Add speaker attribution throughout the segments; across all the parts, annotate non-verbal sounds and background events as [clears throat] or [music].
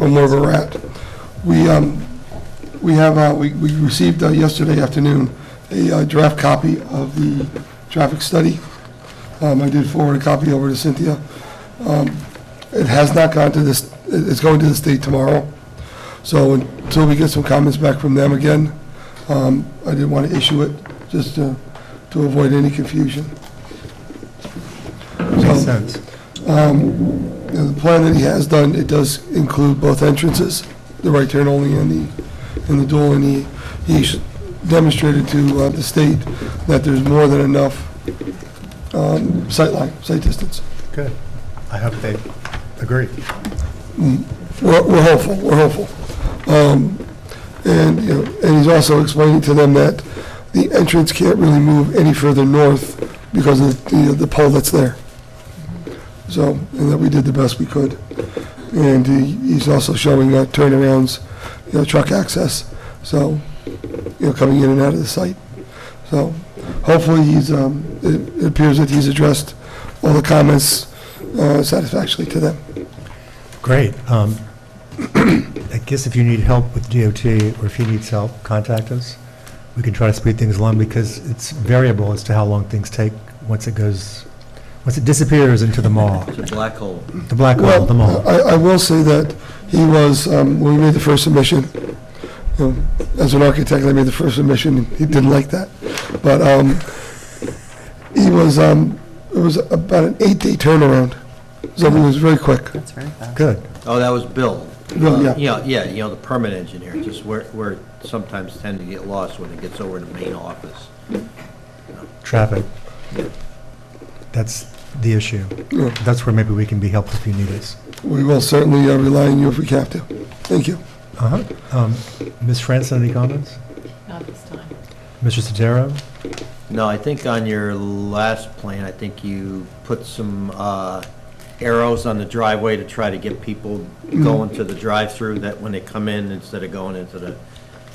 Speaker 1: on where we're at. We, um, we have, uh, we, we received uh, yesterday afternoon a uh, draft copy of the traffic study. Um, I did forward a copy over to Cynthia. Um, It has not gone to this, it- it's going to the state tomorrow. So until we get some comments back from them again, um, I didn't want to issue it just to, to avoid any confusion.
Speaker 2: Makes
Speaker 1: So-
Speaker 2: sense.
Speaker 1: you know, the plan that he has done, it does include both entrances, the right turn only and the, and the dual, and he, he sh- demonstrated to uh, the state that there's more than enough um, sight line, sight distance.
Speaker 2: Good. I hope they agree.
Speaker 1: We're, we're hopeful, we're hopeful. Um, And, you know, and he's also explaining to them that the entrance can't really move any further north because of the, the pole that's there. So, and that we did the best we could. And he- he's also showing uh, turnarounds, you know, truck access, so, you know, coming in and out of the site. So hopefully he's, um, it it appears that he's addressed all the comments uh, satisfactorily to them.
Speaker 2: Great. Um, [clears throat] I guess if you need help with DOT, or if he needs help, contact us. We can try to speed things along, because it's variable as to how long things take once it goes, once it disappears into the mall,
Speaker 3: It's a black hole.
Speaker 2: the black hole,
Speaker 1: Well,
Speaker 2: the mall.
Speaker 1: I, I will say that he was, um, when we made the first submission, you know, as an architect, I made the first submission, and he didn't like that. But, um, he was, um, it was about an eight-day turnaround, so it was very quick.
Speaker 4: That's very
Speaker 1: uh,
Speaker 4: fast.
Speaker 2: Good.
Speaker 3: Oh, that was Bill.
Speaker 1: Bill, yeah.
Speaker 3: Uh, Yeah, you know, the permit engineer, just where, where it sometimes tend to get lost when it gets over to main office.
Speaker 2: Traffic. That's the issue.
Speaker 1: Yeah.
Speaker 2: That's where maybe we can be helpful if you need us.
Speaker 1: We will certainly uh, rely on you if we have to. Thank you.
Speaker 2: Uh-huh. Um, Ms. Franson, any comments?
Speaker 4: Not this time.
Speaker 2: Mr. Sotero?
Speaker 3: No, I think on your last plan, I think you put some uh, arrows on the driveway to try to get people
Speaker 1: Mm-hmm.
Speaker 3: going to the drive-through, that when they come in, instead of going into the,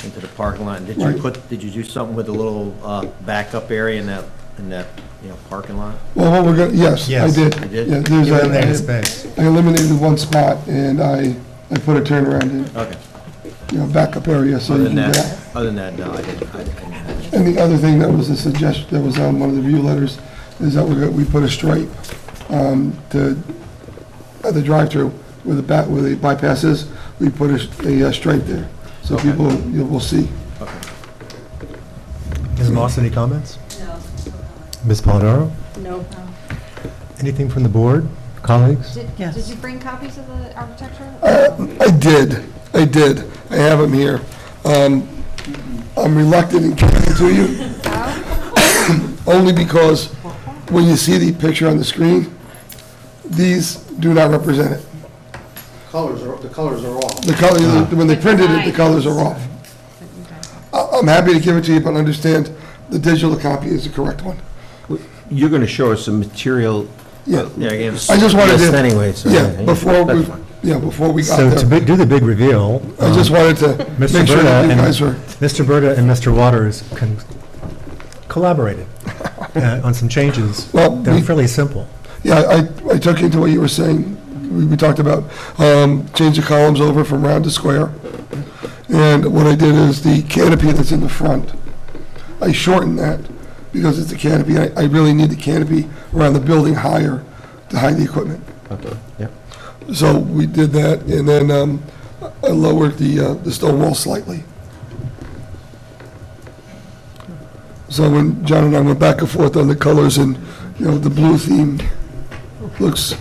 Speaker 3: into the parking lot. Did you
Speaker 1: Right.
Speaker 3: put, did you do something with the little uh, backup area in that, in that, you know, parking lot?
Speaker 1: Well, what we're gonna, yes, I
Speaker 2: Yes.
Speaker 1: did.
Speaker 3: You did?
Speaker 1: Yeah, there's
Speaker 2: You're in
Speaker 1: a-
Speaker 2: that space.
Speaker 1: I eliminated one spot, and I, I put a turnaround in,
Speaker 3: Okay.
Speaker 1: you know, backup area, so
Speaker 3: Other
Speaker 1: you
Speaker 3: than
Speaker 1: can get out.
Speaker 3: that, other than that, no, I didn't, I didn't.
Speaker 1: And the other thing that was a suggestion, that was on one of the review letters, is that we're gonna- we put a stripe um, to, at the drive-through where the back, where the bypass is, we put a s- a uh, stripe there. So people, you will see.
Speaker 2: Ms. Moss, any comments? No. Ms. Polidoro?
Speaker 4: Nope.
Speaker 2: Anything from the board, colleagues?
Speaker 5: Did,
Speaker 4: Yes.
Speaker 5: did you bring copies of the architecture?
Speaker 1: Uh, I did, I did. I have them here. Um, I'm reluctant in giving them to you, [coughs] only because when you see the picture on the screen, these do not represent it.
Speaker 6: colors are, the colors are off.
Speaker 1: The color, when they printed it, the colors are off. I- I'm happy to give it to you, but understand the digital copy is the correct one.
Speaker 7: You're going to show us some material.
Speaker 1: Yeah.
Speaker 3: Yeah, I gave.
Speaker 1: I just wanted to.
Speaker 7: List anyway, so-
Speaker 1: Yeah, before, we-
Speaker 7: That's fine.
Speaker 1: yeah, before we got
Speaker 2: So to
Speaker 1: there.
Speaker 2: big- do the big reveal,
Speaker 1: I just
Speaker 2: um,
Speaker 1: wanted to make
Speaker 2: Mr.
Speaker 1: sure
Speaker 2: Berta
Speaker 1: that you
Speaker 2: and,
Speaker 1: guys were,
Speaker 2: Mr. Berta and Mr. Waters con-
Speaker 1: [laughs]
Speaker 2: collaborated uh, on some changes
Speaker 1: Well,
Speaker 2: that were
Speaker 1: we-
Speaker 2: fairly simple.
Speaker 1: yeah, I, I took into what you were saying. We, we talked about, um, change the columns over from round to square. And what I did is the canopy that's in the front, I shortened that because it's a canopy. I, I really need the canopy around the building higher to hide the equipment.
Speaker 7: Okay, yeah.
Speaker 1: So we did that, and then um, I lowered the, uh, the stone wall slightly. So when John and I went back and forth on the colors and, you know, the blue theme looks,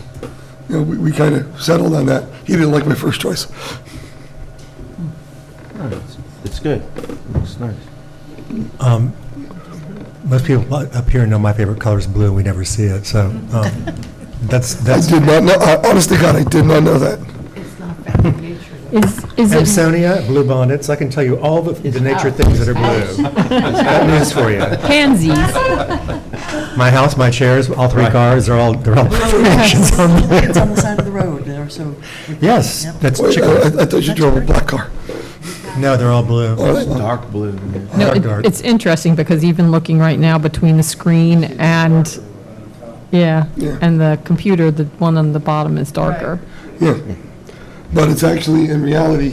Speaker 1: you know, we, we kind of settled on that. He didn't like my first choice.
Speaker 7: It's good. Looks nice.
Speaker 2: Um, Most people up here know my favorite color is blue, we never see it, so um, that's,
Speaker 1: I
Speaker 2: that's.
Speaker 1: did not know, I- honest to God, I did not know that.
Speaker 4: It's not found in nature.
Speaker 5: Is, is
Speaker 2: And
Speaker 5: it,
Speaker 2: Sonia, blue bonnets, I can tell you all the the nature things that are blue. Got news for you.
Speaker 5: pansies?
Speaker 2: My house, my chairs, all three
Speaker 7: Right.
Speaker 2: cars, they're all, they're all [laughs]
Speaker 4: It's
Speaker 2: decorations on there.
Speaker 4: on the side of the road, there, so.
Speaker 2: Yes,
Speaker 4: Yep.
Speaker 2: that's
Speaker 1: Wait, uh, I
Speaker 2: chicken.
Speaker 1: I thought you drove a black car.
Speaker 2: No, they're all blue.
Speaker 1: All right, well,
Speaker 7: Dark blue. yeah.
Speaker 2: Dark,
Speaker 5: No, it-
Speaker 2: dark.
Speaker 5: it's interesting because even looking right now between the screen and, yeah,
Speaker 1: Yeah.
Speaker 5: and the computer, the one on the bottom is darker.
Speaker 1: Yeah. but it's actually, in reality,